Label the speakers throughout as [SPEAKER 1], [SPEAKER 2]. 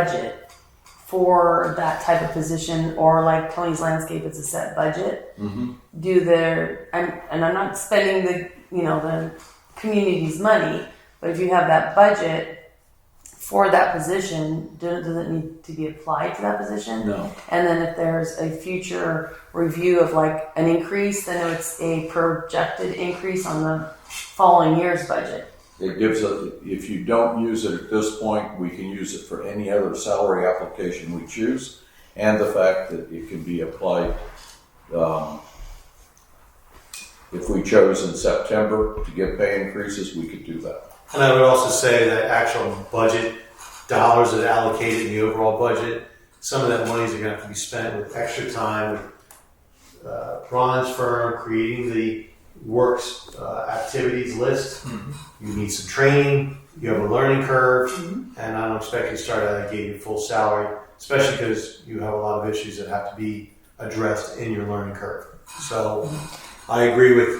[SPEAKER 1] budget for that type of position or like Tony's landscape it's a set budget
[SPEAKER 2] Mhm.
[SPEAKER 1] do their and, and I'm not spending the you know the community's money but if you have that budget for that position do- does it need to be applied to that position
[SPEAKER 2] No.
[SPEAKER 1] and then if there's a future review of like an increase then it's a projected increase on the following year's budget
[SPEAKER 2] It gives us, if you don't use it at this point, we can use it for any other salary application we choose. And the fact that it can be applied, um, if we chose in September to get pay increases, we could do that.
[SPEAKER 3] And I would also say that actual budget dollars that are allocated in the overall budget, some of that money is going to have to be spent with extra time with uh, Ron's firm creating the works uh, activities list. You need some training. You have a learning curve, and I don't expect you to start out of the gate at full salary, especially because you have a lot of issues that have to be addressed in your learning curve. So, I agree with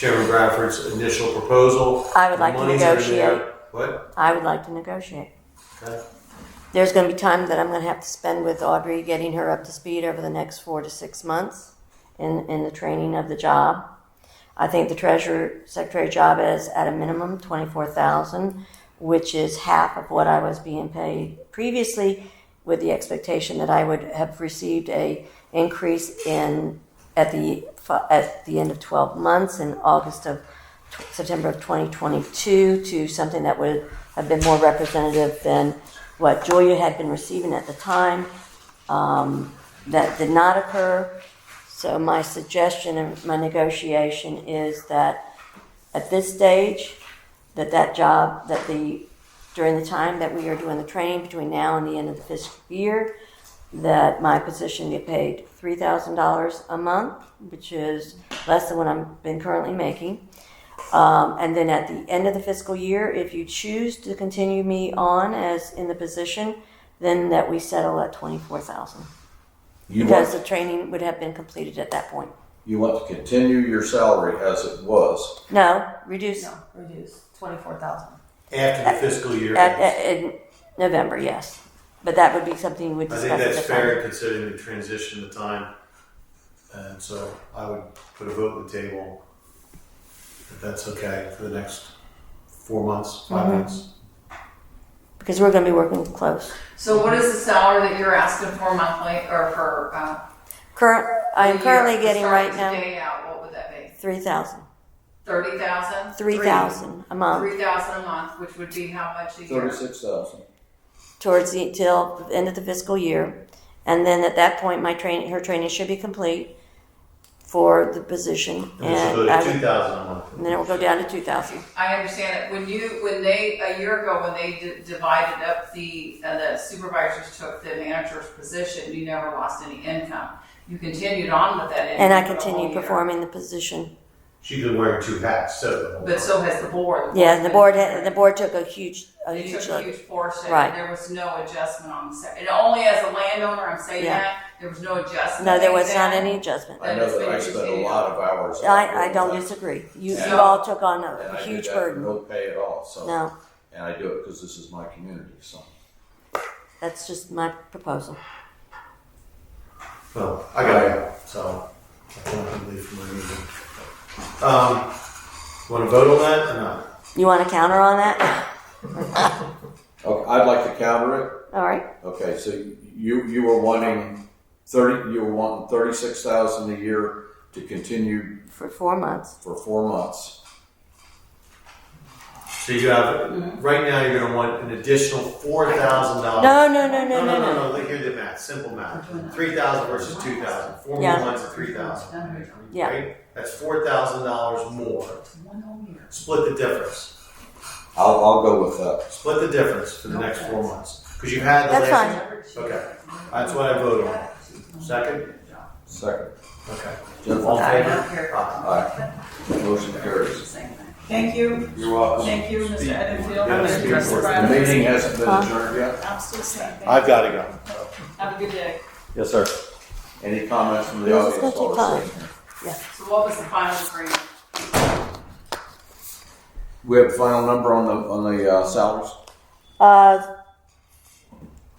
[SPEAKER 3] Chairman Bradford's initial proposal.
[SPEAKER 4] I would like to
[SPEAKER 3] Money's already there.
[SPEAKER 4] negotiate.
[SPEAKER 3] What?
[SPEAKER 4] I would like to negotiate.
[SPEAKER 3] Okay.
[SPEAKER 4] There's going to be time that I'm going to have to spend with Audrey getting her up to speed over the next four to six months in, in the training of the job. I think the treasurer secretary job is at a minimum twenty-four thousand, which is half of what I was being paid previously, with the expectation that I would have received a increase in at the fi- at the end of twelve months in August of September of twenty twenty-two to something that would have been more representative than what Julia had been receiving at the time. Um, that did not occur. So my suggestion and my negotiation is that at this stage, that that job, that the, during the time that we are doing the training between now and the end of the fiscal year, that my position get paid three thousand dollars a month, which is less than what I've been currently making. Um, and then at the end of the fiscal year, if you choose to continue me on as in the position, then that we settle at twenty-four thousand.
[SPEAKER 2] You
[SPEAKER 4] Because
[SPEAKER 2] want,
[SPEAKER 4] the training would have been completed at that point.
[SPEAKER 2] you want to continue your salary as it was.
[SPEAKER 4] No, reduce
[SPEAKER 1] no reduce 24,000
[SPEAKER 3] After the fiscal year.
[SPEAKER 4] at,
[SPEAKER 3] ends.
[SPEAKER 4] at- in November, yes. But that would be something we would
[SPEAKER 3] I
[SPEAKER 4] discuss.
[SPEAKER 3] think that's
[SPEAKER 4] at the time.
[SPEAKER 3] fair considering the transition of time. And so I would put a vote on the table if that's okay for the next four months, 5
[SPEAKER 4] Mm-hmm.
[SPEAKER 3] months.
[SPEAKER 4] Because we're going to be working close.
[SPEAKER 5] So what is the salary that you're asking for monthly or for? Uh,
[SPEAKER 4] Current, I am
[SPEAKER 5] a
[SPEAKER 4] currently
[SPEAKER 5] year?
[SPEAKER 4] getting
[SPEAKER 5] Starting
[SPEAKER 4] right now
[SPEAKER 5] Today out, what would that be?
[SPEAKER 4] three thousand,
[SPEAKER 5] Thirty thousand.
[SPEAKER 4] three thousand a month
[SPEAKER 5] Three thousand a month, which would be how much a year?
[SPEAKER 2] Thirty-six thousand.
[SPEAKER 4] towards the till the end of the fiscal year, and then at that point, my train her training should be complete for the position,
[SPEAKER 3] And this
[SPEAKER 4] and
[SPEAKER 3] will go
[SPEAKER 4] I
[SPEAKER 3] to
[SPEAKER 4] would-
[SPEAKER 3] 2000 a month.
[SPEAKER 4] and then it will go down to two thousand.
[SPEAKER 5] I understand it. When you, when they, a year ago, when they d- divided up the, uh, the supervisors took the manager's position, you never lost any income. You continued on with that income.
[SPEAKER 4] And I
[SPEAKER 5] for the whole
[SPEAKER 4] continue
[SPEAKER 5] year.
[SPEAKER 4] performing the position
[SPEAKER 3] She's been wearing two hats, so.
[SPEAKER 5] But so has the board.
[SPEAKER 4] Yeah, and the board had, the board took a huge, a
[SPEAKER 5] They took
[SPEAKER 4] huge
[SPEAKER 5] a
[SPEAKER 4] look.
[SPEAKER 5] huge portion.
[SPEAKER 4] Right.
[SPEAKER 5] There was no adjustment on the, sa- and only as a landowner, I'm saying
[SPEAKER 4] Yeah.
[SPEAKER 5] that, there was no adjustment.
[SPEAKER 4] No, there
[SPEAKER 5] made
[SPEAKER 4] was not
[SPEAKER 5] then.
[SPEAKER 4] any adjustment.
[SPEAKER 2] I know that I spent a lot of hours.
[SPEAKER 4] I, I don't disagree. You, you all took on
[SPEAKER 2] And
[SPEAKER 4] a
[SPEAKER 2] I did
[SPEAKER 4] huge
[SPEAKER 2] that for
[SPEAKER 4] burden.
[SPEAKER 2] no pay at all, so.
[SPEAKER 4] No,
[SPEAKER 2] And I do it because this is my community, so.
[SPEAKER 4] that's just my proposal.
[SPEAKER 3] Well, I gotta go, so I can't leave for my meeting. Um, want to vote on that or not?
[SPEAKER 4] You want to counter on that?
[SPEAKER 2] Okay, I'd like to counter it.
[SPEAKER 4] All right,
[SPEAKER 2] Okay, so you, you were wanting thirty, you were wanting thirty-six thousand a year to continue
[SPEAKER 4] for four months.
[SPEAKER 2] for four months.
[SPEAKER 3] So you
[SPEAKER 5] Mm-hmm.
[SPEAKER 3] have, right now, you're going to want an additional $4,000.
[SPEAKER 4] No, no, no, no,
[SPEAKER 3] No, no,
[SPEAKER 4] no,
[SPEAKER 3] no, no, here's the math, simple math. Three thousand versus two thousand. Four
[SPEAKER 4] Yeah.
[SPEAKER 3] more months of three
[SPEAKER 5] "Oh,
[SPEAKER 3] thousand.
[SPEAKER 4] Yeah.
[SPEAKER 3] Right? That's four thousand dollars more.
[SPEAKER 5] One whole year.
[SPEAKER 3] Split the difference.
[SPEAKER 2] I'll, I'll go with that.
[SPEAKER 3] Split the difference for the next four months. Because you had the
[SPEAKER 4] That's
[SPEAKER 3] last. Okay, that's what I voted on. Second?
[SPEAKER 2] Second.
[SPEAKER 3] Okay.
[SPEAKER 2] Jennifer,
[SPEAKER 3] All in
[SPEAKER 5] I
[SPEAKER 3] favor?
[SPEAKER 5] don't care.
[SPEAKER 2] aye. Motion carries.
[SPEAKER 6] Thank you,
[SPEAKER 2] You're welcome.
[SPEAKER 6] thank you, Mr. Edenfield.
[SPEAKER 3] Yeah,
[SPEAKER 6] I'm
[SPEAKER 3] it's
[SPEAKER 6] gonna address the
[SPEAKER 3] important.
[SPEAKER 2] The meeting
[SPEAKER 6] private.
[SPEAKER 2] hasn't been adjourned yet.
[SPEAKER 6] I'm still saying thank
[SPEAKER 3] I've gotta go.
[SPEAKER 6] you. Have a good day.
[SPEAKER 2] Yes, sir. Any comments from the
[SPEAKER 4] Yes, it's
[SPEAKER 2] audience?
[SPEAKER 4] gonna take
[SPEAKER 2] while we're sitting here?
[SPEAKER 5] So what was the final agreement?
[SPEAKER 2] We have a final number on the, on the uh, salaries?
[SPEAKER 4] no. Uh,